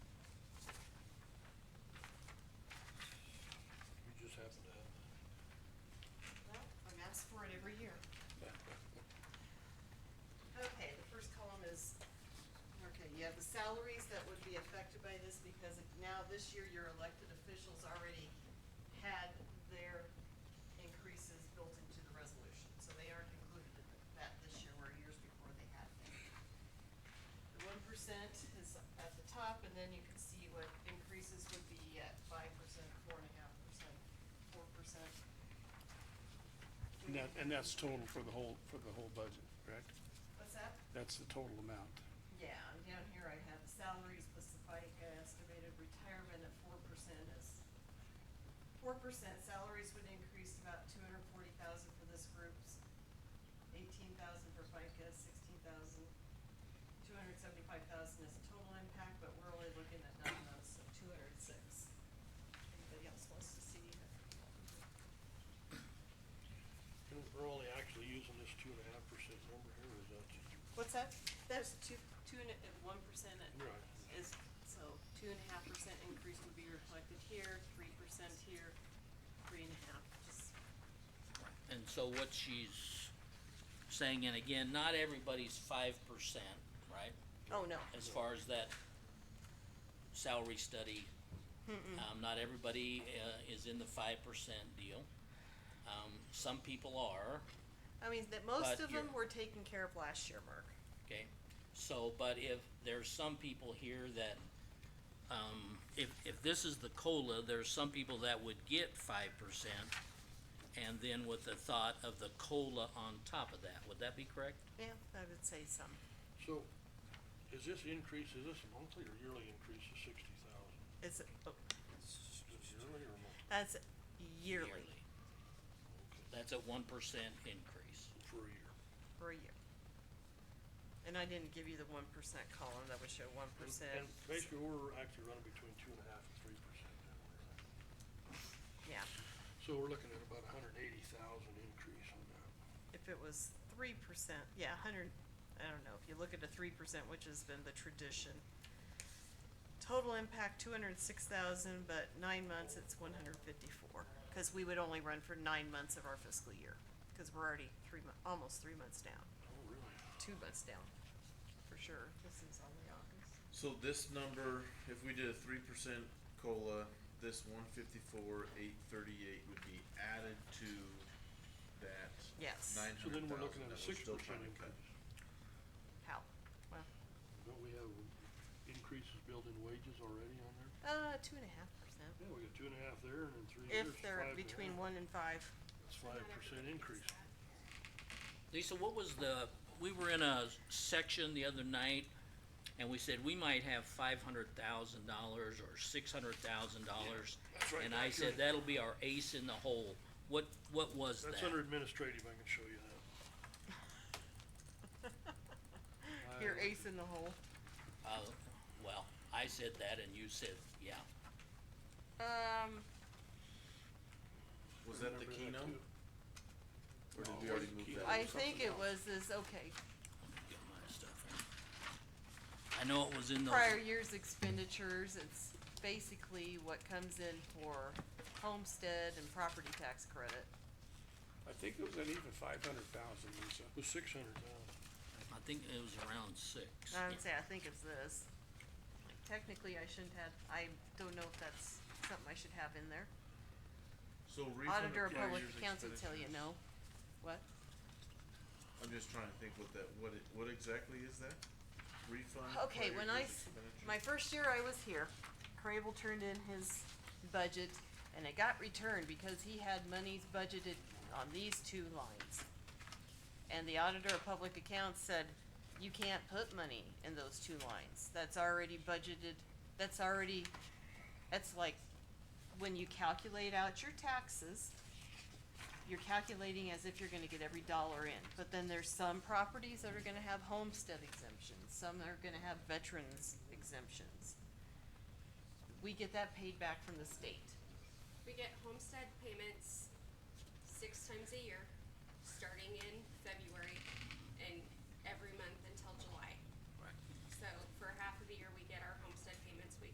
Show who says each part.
Speaker 1: affected by this because now this year your elected officials already had their increases built into the resolution. So they aren't included in that this year, where years before they had them. The one percent is at the top, and then you can see what increases would be at five percent, four and a half percent, four percent.
Speaker 2: And that, and that's total for the whole, for the whole budget, correct?
Speaker 1: What's that?
Speaker 2: That's the total amount.
Speaker 1: Yeah, and down here I have the salaries plus the FICA estimated retirement at four percent is, four percent salaries would increase about two hundred forty thousand for this group's, eighteen thousand for FICA, sixteen thousand, two hundred seventy-five thousand is total impact, but we're only looking at nine months, so two hundred six. Anybody else wants to see?
Speaker 3: And We're only actually using this two and a half percent number here, is that,
Speaker 1: What's that? That's two, two and, and one percent at
Speaker 3: right,
Speaker 1: is, so two and a half percent increase would be reflected here, three percent here, three and a half, just,
Speaker 4: And so what she's saying, and again, not everybody's five percent, right,
Speaker 1: oh, no.
Speaker 4: as far as that salary study. Um, not everybody, uh, is in the five percent deal. Um, some people are,
Speaker 1: I mean, that most
Speaker 4: But
Speaker 1: of them were
Speaker 4: you're-
Speaker 1: taken care of last year, Mark.
Speaker 4: okay? So, but if there's some people here that, um, if, if this is the COLA, there's some people that would get five percent. And then with the thought of the COLA on top of that, would that be correct?
Speaker 1: Yeah, I would say some.
Speaker 3: so, is this increase, is this a monthly or yearly increase of sixty thousand?
Speaker 1: It's, oh,
Speaker 3: Is it yearly or monthly?
Speaker 1: that's yearly,
Speaker 3: Okay,
Speaker 4: That's a one percent increase.
Speaker 3: For a year.
Speaker 1: for a year. And I didn't give you the one percent column, that would show one
Speaker 3: And-
Speaker 1: percent.
Speaker 3: And basically, we're actually running between two and a half and three percent down there.
Speaker 1: Yeah,
Speaker 3: So we're looking at about a hundred and eighty thousand increase on that.
Speaker 1: if it was three percent, yeah, a hundred, I don't know, if you look at the three percent, which has been the tradition. Total impact, two hundred and six thousand, but nine months, it's one hundred and fifty-four, cause we would only run for nine months of our fiscal year, cause we're already three mon- almost three months down,
Speaker 3: Oh, really?
Speaker 1: two months down, for sure, this is only August.
Speaker 5: So this number, if we did a three percent cola, this one fifty-four, eight thirty-eight would be added to that
Speaker 1: Yes,
Speaker 5: nine
Speaker 3: So then
Speaker 5: hundred
Speaker 3: we're looking at
Speaker 5: thousand that
Speaker 3: a
Speaker 5: we're
Speaker 3: six
Speaker 5: still
Speaker 3: percent
Speaker 5: trying to cut.
Speaker 3: increase.
Speaker 1: how, well,
Speaker 3: Don't we have increases built in wages already on there?
Speaker 1: uh, two and a half percent,
Speaker 3: Yeah, we got two and a half there and in three years,
Speaker 1: if
Speaker 3: five
Speaker 1: they're
Speaker 3: and a
Speaker 1: between
Speaker 3: half.
Speaker 1: one and five.
Speaker 3: That's five percent increase.
Speaker 4: Lisa, what was the, we were in a section the other night, and we said we might have five hundred thousand dollars or six hundred thousand dollars.
Speaker 3: that's right,
Speaker 4: And I
Speaker 3: that's
Speaker 4: said
Speaker 3: right.
Speaker 4: that'll be our ace in the hole. What, what was that?
Speaker 3: That's under administrative, I can show you that. I
Speaker 1: You're
Speaker 3: looked
Speaker 1: ace in the hole.
Speaker 4: Uh, well, I said that and you said, yeah.
Speaker 1: Um,
Speaker 5: Was that
Speaker 3: Remember
Speaker 5: the
Speaker 3: that
Speaker 5: keynote?
Speaker 3: too.
Speaker 5: Or did
Speaker 3: No,
Speaker 5: we
Speaker 3: it
Speaker 5: already
Speaker 3: wasn't
Speaker 5: move
Speaker 3: keynote.
Speaker 5: that?
Speaker 1: I think it was this, okay,
Speaker 4: Get my stuff in. I know it was in those,
Speaker 1: prior year's expenditures, it's basically what comes in for homestead and property tax credit.
Speaker 2: I think it was an even five hundred thousand, Lisa.
Speaker 3: It was six hundred thousand.
Speaker 4: I think it was around six.
Speaker 1: I
Speaker 4: Yeah.
Speaker 1: would say, I think it's this. Technically, I shouldn't have, I don't know if that's something I should have in there.
Speaker 5: So refund
Speaker 1: Auditor
Speaker 5: of
Speaker 1: of
Speaker 5: prior
Speaker 1: Public
Speaker 5: year's
Speaker 1: Accounts would tell you
Speaker 5: expenditures.
Speaker 1: no. What?
Speaker 5: I'm just trying to think what that, what it, what exactly is that? Refund? of
Speaker 1: Okay,
Speaker 5: prior
Speaker 1: when I,
Speaker 5: year's
Speaker 1: s-
Speaker 5: expenditures?
Speaker 1: my first year I was here, Crable turned in his budget and it got returned because he had monies budgeted on these two lines. And the auditor of public accounts said, you can't put money in those two lines, that's already budgeted, that's already, that's like, when you calculate out your taxes, you're calculating as if you're gonna get every dollar in, but then there's some properties that are gonna have homestead exemptions, some are gonna have veterans exemptions. We get that paid back from the state.
Speaker 6: We get homestead payments six times a year, starting in February and every month